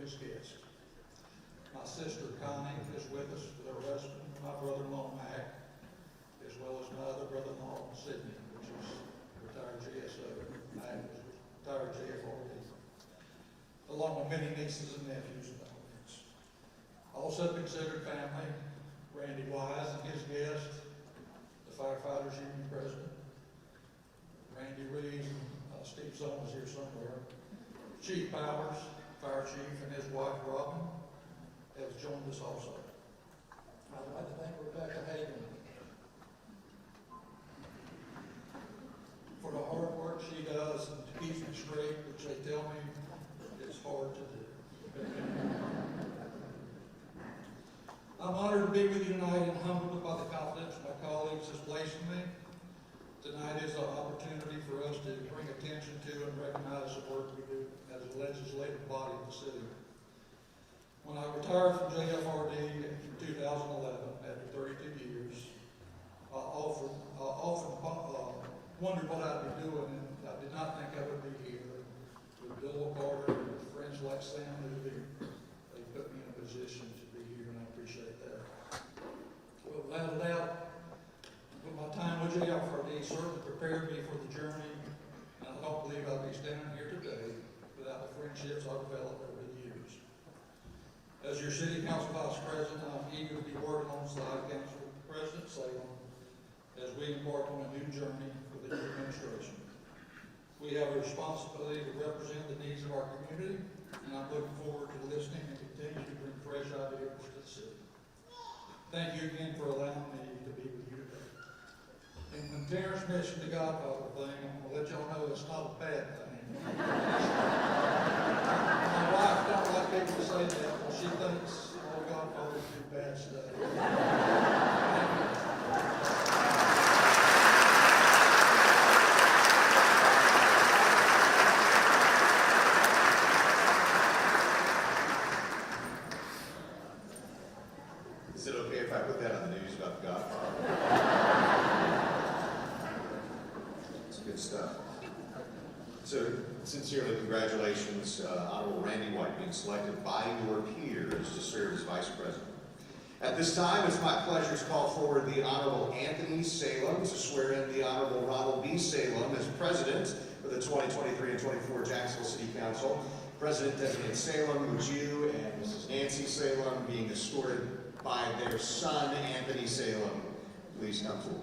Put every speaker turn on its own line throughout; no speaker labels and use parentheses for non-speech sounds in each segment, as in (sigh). his guest. My sister Connie is with us with her husband, my brother-in-law Mac, as well as my other brother-in-law Sidney, which is retired GSO. Mac is retired JFRD, along with many nieces and nephews and all also considered family, Randy Wise and his guest, the firefighters union president. Randy Reed, uh, Steve Zone is here somewhere. Chief Powers, fire chief, and his wife Robin have joined us also. I'd like to thank Rebecca Hagan for the hard work she does and to keep me straight, which they tell me is hard to do. I'm honored to be with you tonight and humbled by the confidence my colleagues have placed in me. Tonight is an opportunity for us to bring attention to and recognize the work we do as a legislative body of the city. When I retired from JFRD in 2011, after 32 years, I often, I often uh, wondered what I'd be doing, and I did not think I would be here with Bill Carter and friends like Sam Newby. They put me in a position to be here, and I appreciate that. Well, without a doubt, with my time with JFRD certainly prepared me for the journey, and I don't believe I'd be standing here today without the friendships I've developed over the years. As your city council vice president, I'm eager to be working alongside council president Salem as we embark on a new journey for the new administration. We have a responsibility to represent the needs of our community, and I'm looking forward to listening and continuing to bring fresh ideas to the city. Thank you again for allowing me to be with you today. And when Terrence mentioned the Godfather thing, I'm gonna let y'all know it's not a bad thing. (laughs) My wife don't like people to say that, but she thinks oh, all Godfathers do bad stuff.
Is it okay if I put that on the news about the Godfather? It's good stuff. So sincerely, congratulations, uh, Honorable Randy White, being selected by your peers to serve as Vice President. At this time, it's my pleasure to call forward the Honorable Anthony Salem to swear in the Honorable Ronald B. Salem as President of the 2023 and 24 Jacksonville City Council. President Designate Salem, would you and Mrs. Nancy Salem being escorted by their son, Anthony Salem, please come forward?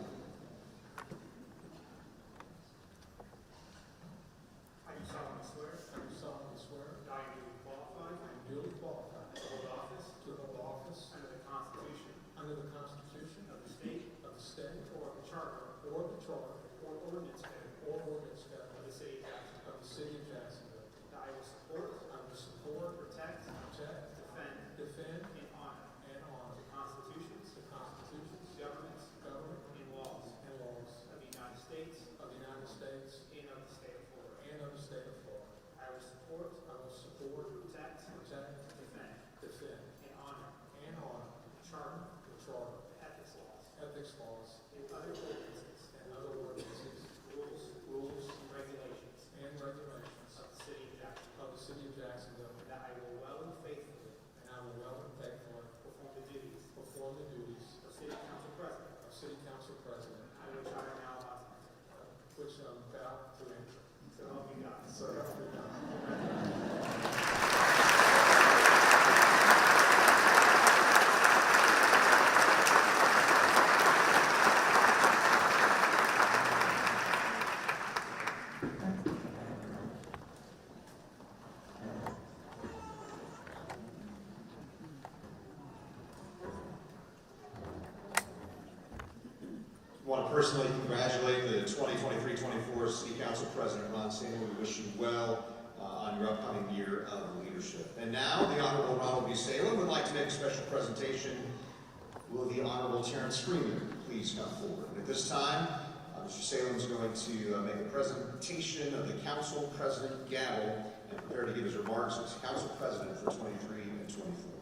I do solemnly swear
I do solemnly swear
that I am duly qualified
I am duly qualified
to hold office
to hold office
under the Constitution
under the Constitution
of the state
of the state
or the charter
or the charter
or ordinance code
or ordinance code
of the city of Jacksonville,
of the city of Jacksonville.
that I will support,
I will support,
protect,
protect,
defend,
defend,
and honor
and honor
the constitutions,
the constitutions,
governments,
government,
and laws
and laws
of the United States
of the United States
and of the state of Florida.
and of the state of Florida.
I will support,
I will support,
protect,
protect,
defend,
defend,
and honor
and honor
the charter,
the charter,
the ethics laws,
ethics laws,
and other ordinances,
and other ordinances,
rules,
rules,
and regulations
and regulations
of the city of Jacksonville.
of the city of Jacksonville,
And that I will well and faithfully
and I will well and faithfully
perform the duties
perform the duties
of City Council President,
of city council president,
I which I am now about to
which I'm about to enter.
enter. So help me God.
So help me God.
Want to personally congratulate the 2023-24 City Council President Ron Salem. We wish you well uh, on your upcoming year of leadership. And now, the Honorable Ronald B. Salem would like to make a special presentation. Will the Honorable Terrence Freeman please come forward? And At this time, uh, Mr. Salem is going to uh, make a presentation of the Council President gavel and prepare to give his remarks as Council President for 23 and 24.